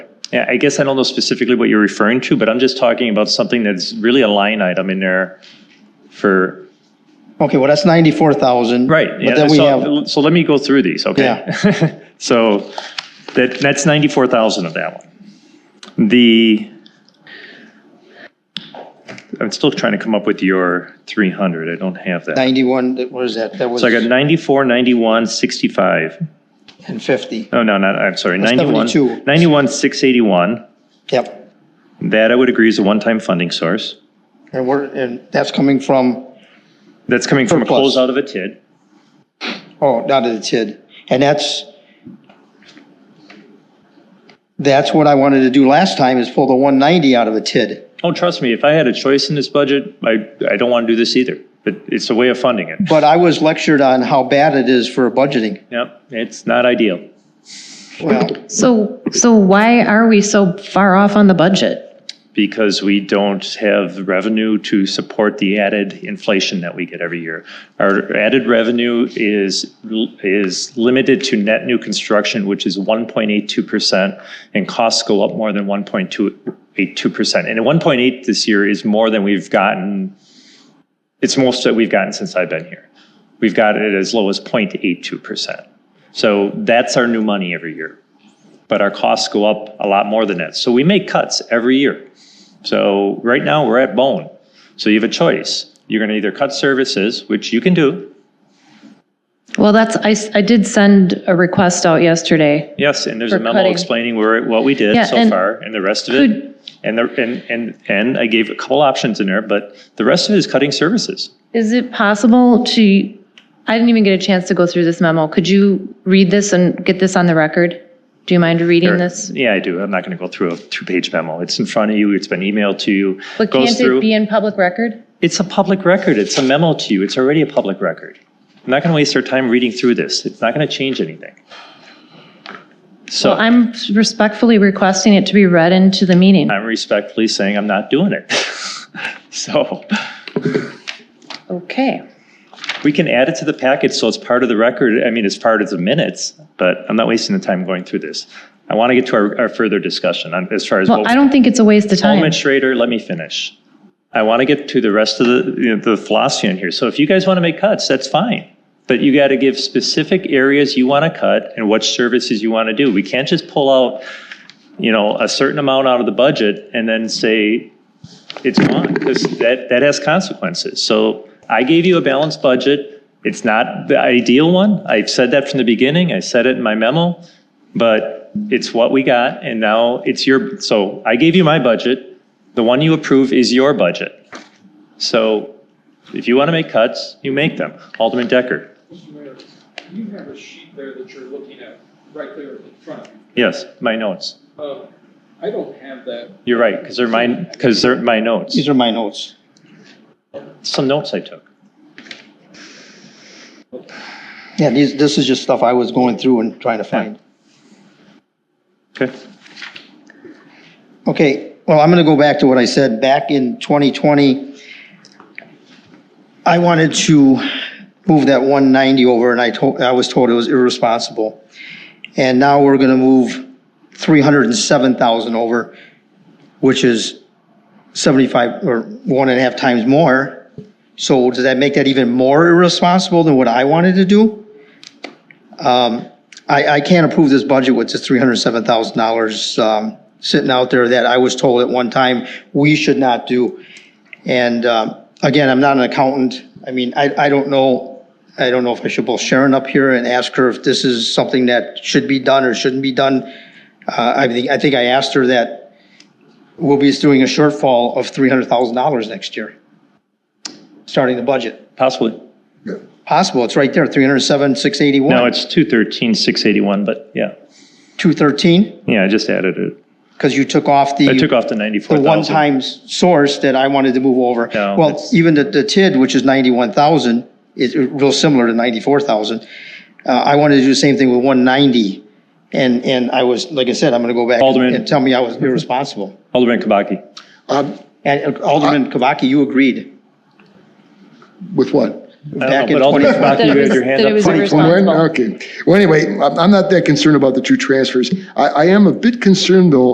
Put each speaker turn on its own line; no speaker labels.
Yeah, I guess I don't know specifically what you're referring to, but I'm just talking about something that's really a line item in there for,
Okay, well, that's 94,000.
right. yeah,
But then we
so-
have,
So let me go through these, okay? So that, that's 94,000 of that one. The, I'm still trying to come up with your 300, I don't have that.
91, that- what is that? That was,
So I got 94, 91, 65.
and 50.
Oh, no, not, I'm sorry, 91.
72.
91, 681.
Yep.
That I would agree is a one-time funding source.
And we're, and that's coming from,
That's coming from a
Surplus.
closeout of a TID.
oh, not of the TID. And that's, that's what I wanted to do last time, is pull the 190 out of a TID.
Oh, trust me, if I had a choice in this budget, I, I don't want to do this either. But it's a way of funding it.
But I was lectured on how bad it is for budgeting.
Yep, it's not ideal.
Well,
So, so why are we so far off on the budget?
because we don't have revenue to support the added inflation that we get every year. Our added revenue is, is limited to net new construction, which is 1.82%, and costs go up more than 1.282%. And 1.8 this year is more than we've gotten, it's most that we've gotten since I've been here. We've got it as low as 0.82%. So that's our new money every year but our costs go up a lot more than that. So we make cuts every year. So right now we're at bone. So you have a choice. You're going to either cut services, which you can do.
Well, that's, I, s- I did send a request out yesterday.
Yes, and there's a
For
memo
cutting.
explaining where what we did
Yeah,
so
and
far and the rest of
could-
it. And the and and and I gave a couple options in there, but the rest of it is cutting services.
Is it possible to, I didn't even get a chance to go through this memo. Could you read this and get this on the record? Do you mind reading this?
Yeah, I do. I'm not going to go through a two-page memo. It's in front of you. It's been emailed to you.
But
goes
can't
through.
it be in public record?
It's a public record. It's a memo to you. It's already a public record. I'm not going to waste our time reading through this. It's not going to change anything. So
Well,
I'm,
I'm respectfully requesting it to be read into the meeting.
respectfully saying I'm not doing it. so
Okay.
we can add it to the packet so it's part of the record. I mean, it's part of the minutes, but I'm not wasting the time going through this. I want to get to our, our further discussion on, as far as
Well,
what-
I don't think it's a waste of time.
Alderman Schrader, let me finish. I want to get to the rest of the, you know, the philosophy in here. So if you guys want to make cuts, that's fine. But you got to give specific areas you want to cut and what services you want to do. We can't just pull out, you know, a certain amount out of the budget and then say it's gone because that, that has consequences. So I gave you a balanced budget. It's not the ideal one. I've said that from the beginning. I said it in my memo. But it's what we got and now it's your, so I gave you my budget. The one you approve is your budget. So if you want to make cuts, you make them. Alderman Decker,
Mr. Mayor, you have a sheet there that you're looking at, right there in front of you.
yes, my notes.
Uh, I don't have that.
You're right, because they're mine, because they're my notes.
these are my notes.
Some notes I took.
Yeah, these, this is just stuff I was going through and trying to find.
Okay.
Okay, well, I'm going to go back to what I said back in 2020. I wanted to move that 190 over and I told, I was told it was irresponsible. And now we're going to move 307,000 over, which is 75 or one and a half times more. So does that make that even more irresponsible than what I wanted to do? Um, I, I can't approve this budget with just three hundred seven thousand dollars, um, sitting out there that I was told at one time we should not do. And, um, again, I'm not an accountant. I mean, I, I don't know, I don't know if I should pull Sharon up here and ask her if this is something that should be done or shouldn't be done. Uh, I think, I think I asked her that we'll be doing a shortfall of three hundred thousand dollars next year, starting the budget.
Possibly.
Possible, it's right there, three hundred seven, six eighty-one.
No, it's 213, 681, but yeah.
Two thirteen?
Yeah, I just added it.
Because you took off
I took
the,
off the
the
94,000.
one-time s- source that I wanted to move over.
No,
Well,
that's-
even the, the TID, which is ninety-one thousand, is real similar to ninety-four thousand. Uh, I wanted to do the same thing with one ninety, and, and I was, like I said, I'm gonna go back and-
Alderman.
and tell me I was irresponsible.
Alderman Kabaki.
Um,
And uh, Alderman Kubaki, you agreed
With what?
back
know,
in
but
twenty.
Alderman Kabaki, you had your hand
That
up.
it was
Funny.
From when?
irresponsible.
Okay. Well, anyway, I'm I'm not that concerned about the two transfers. I, I am a bit concerned, though,